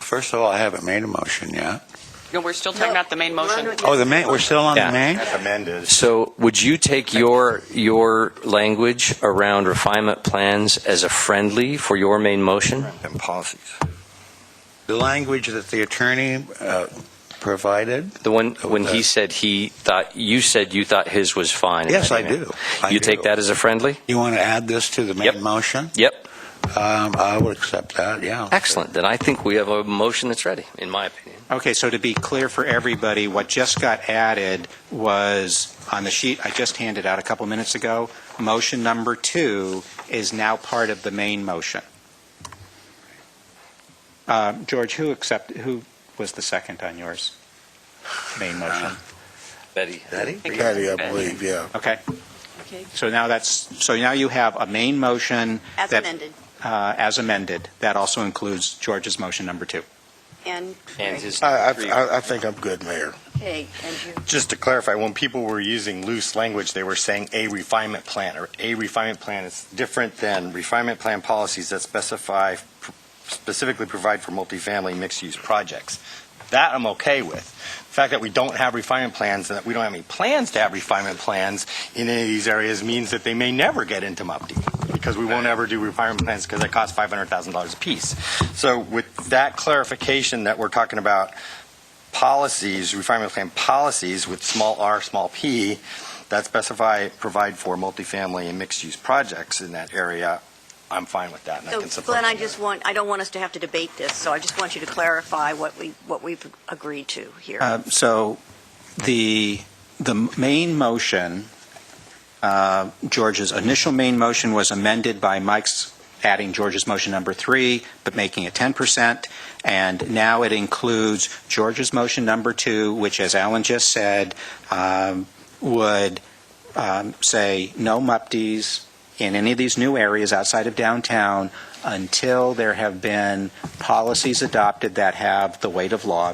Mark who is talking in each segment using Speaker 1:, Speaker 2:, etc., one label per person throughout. Speaker 1: First of all, I haven't made a motion yet.
Speaker 2: No, we're still talking about the main motion.
Speaker 1: Oh, the main, we're still on the
Speaker 3: Yeah.
Speaker 1: main?
Speaker 4: As amended.
Speaker 3: So would you take your, your language around refinement plans as a friendly for your main motion?
Speaker 4: And policies.
Speaker 1: The language that the attorney uh, provided?
Speaker 3: The one, when he said he thought, you said you thought his was fine.
Speaker 1: Yes, I do. I
Speaker 3: You
Speaker 1: do.
Speaker 3: take that as a friendly?
Speaker 1: You want to add this to the
Speaker 3: Yep.
Speaker 1: main motion?
Speaker 3: Yep.
Speaker 1: Um, I would accept that, yeah.
Speaker 3: Excellent. Then I think we have a motion that's ready, in my opinion.
Speaker 5: Okay, so to be clear for everybody, what just got added was on the sheet I just handed out a couple minutes ago, motion number two is now part of the main motion. Uh, George, who accept, who was the second on yours? Main motion.
Speaker 3: Betty?
Speaker 1: Betty?
Speaker 6: Patty, I believe, yeah.
Speaker 5: Okay,
Speaker 7: Uh, Okay,
Speaker 5: so now that's, so now you have a main motion.
Speaker 7: as
Speaker 5: that-
Speaker 7: amended,
Speaker 5: uh, As amended. That also includes George's motion number two.
Speaker 7: and,
Speaker 3: And his.
Speaker 6: I, I- I, I think I'm good, Mayor.
Speaker 7: okay, and you,
Speaker 4: Just to clarify, when people were using loose language, they were saying a refinement plan, or a refinement plan is different than refinement plan policies that specify, specifically provide for multifamily mixed-use projects. That I'm okay with. The fact that we don't have refinement plans, and that we don't have any plans to have refinement plans in any of these areas means that they may never get into MUPD, because we won't ever do refinement plans, because that costs $500,000 apiece. So with that clarification that we're talking about policies, refinement plan policies with small r, small p, that specify, provide for multifamily and mixed-use projects in that area, I'm fine with that, and I can
Speaker 7: so
Speaker 4: support
Speaker 7: Glenn, I
Speaker 4: that.
Speaker 7: just want, I don't want us to have to debate this, so I just want you to clarify what we, what we've agreed to here.
Speaker 5: Uh, So the, the main motion, uh, George's initial main motion was amended by Mike's adding George's motion number three, but making it 10%. And now it includes George's motion number two, which, as Alan just said, um, would um, say no MUPDs in any of these new areas outside of downtown until there have been policies adopted that have the weight of law,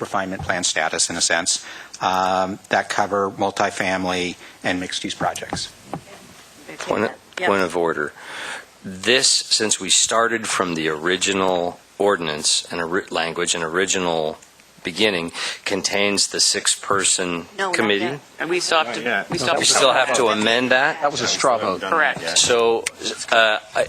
Speaker 5: refinement plan status in a sense, um, that cover multifamily and mixed-use projects.
Speaker 7: Okay,
Speaker 3: Point
Speaker 7: that-
Speaker 3: of,
Speaker 7: yeah.
Speaker 3: point of order. This, since we started from the original ordinance and ori- language and original beginning, contains the six-person
Speaker 7: No, not
Speaker 3: committee?
Speaker 7: yet.
Speaker 2: And we still have to,
Speaker 4: Yeah.
Speaker 2: we still have
Speaker 3: We
Speaker 2: to.
Speaker 3: still have to amend that?
Speaker 8: That was a straw vote.
Speaker 2: Correct.
Speaker 3: So, uh, I-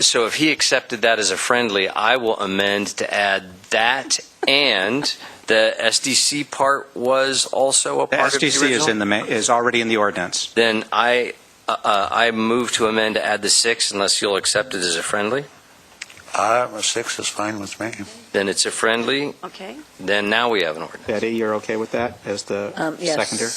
Speaker 3: so if he accepted that as a friendly, I will amend to add that and the SDC part was also a
Speaker 5: The
Speaker 3: part of the
Speaker 5: SDC is in
Speaker 3: original?
Speaker 5: the, ma- is already in the ordinance.
Speaker 3: Then I, uh, uh, I move to amend to add the six unless you'll accept it as a friendly?
Speaker 1: Uh, Six is fine with me.
Speaker 3: Then it's a friendly,
Speaker 7: Okay,
Speaker 3: then now we have an ordinance.
Speaker 5: Betty, you're okay with that as the seconder?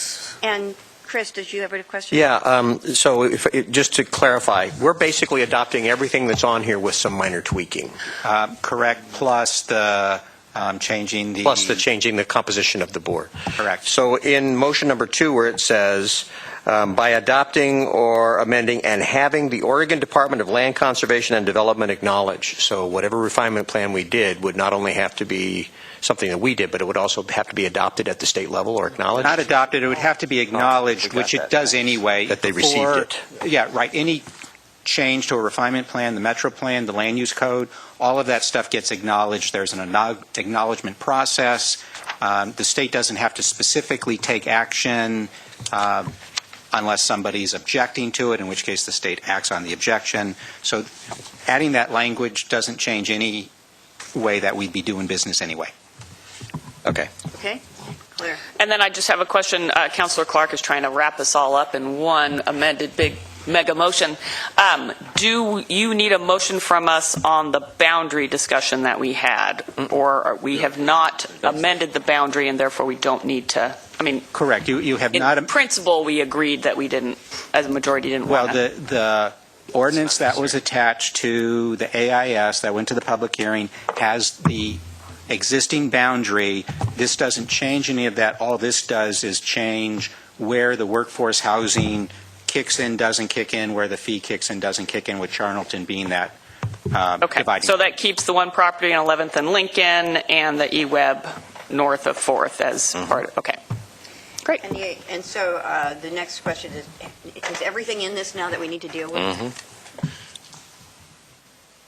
Speaker 7: and Chris, did you have a question?
Speaker 8: Yeah,
Speaker 3: uh,
Speaker 8: um, so if, it- just to clarify, we're basically adopting everything that's on here with some minor tweaking,
Speaker 5: Uh, Correct, plus the um, changing the...
Speaker 8: plus the changing the composition of the board.
Speaker 5: Correct.
Speaker 8: So in motion number two, where it says, um, by adopting or amending and having the Oregon Department of Land Conservation and Development acknowledge, so whatever refinement plan we did would not only have to be something that we did, but it would also have to be adopted at the state level or acknowledged?
Speaker 5: Not adopted, it would have to be acknowledged,
Speaker 8: got
Speaker 5: which it
Speaker 8: Oh, that.
Speaker 5: does anyway.
Speaker 8: That they received
Speaker 5: before-
Speaker 8: it.
Speaker 5: Yeah, right. Any change to a refinement plan, the metro plan, the land use code, all of that stuff gets acknowledged. There's an acknow- acknowledgement process. Um, The state doesn't have to specifically take action um, unless somebody's objecting to it, in which case the state acts on the objection. So adding that language doesn't change any way that we'd be doing business anyway.
Speaker 8: Okay.
Speaker 7: Okay, clear.
Speaker 2: And then I just have a question. Uh, Counselor Clark is trying to wrap us all up in one amended big mega motion. Um, Do you need a motion from us on the boundary discussion that we had? Or are- we have not amended the boundary and therefore we don't need to, I mean,
Speaker 5: Correct. You you have not...
Speaker 2: in principle, we agreed that we didn't, as a majority didn't
Speaker 5: Well,
Speaker 2: want to.
Speaker 5: the, the ordinance that was attached to the AIS that went to the public hearing has the existing boundary. This doesn't change any of that. All this does is change where the workforce housing kicks in, doesn't kick in, where the fee kicks in, doesn't kick in, with Charnleton being that uh,
Speaker 2: Okay,
Speaker 5: dividing.
Speaker 2: so that keeps the one property on 11th and Lincoln and the E-Web north of 4th as
Speaker 5: Mm-hmm.
Speaker 2: part, of okay. Great.
Speaker 7: And you, and so, uh, the next question is, is everything in this now that we need to deal
Speaker 3: Mm-hmm.
Speaker 7: with?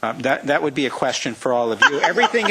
Speaker 5: Uh, That, that would be a question for all of you. Everything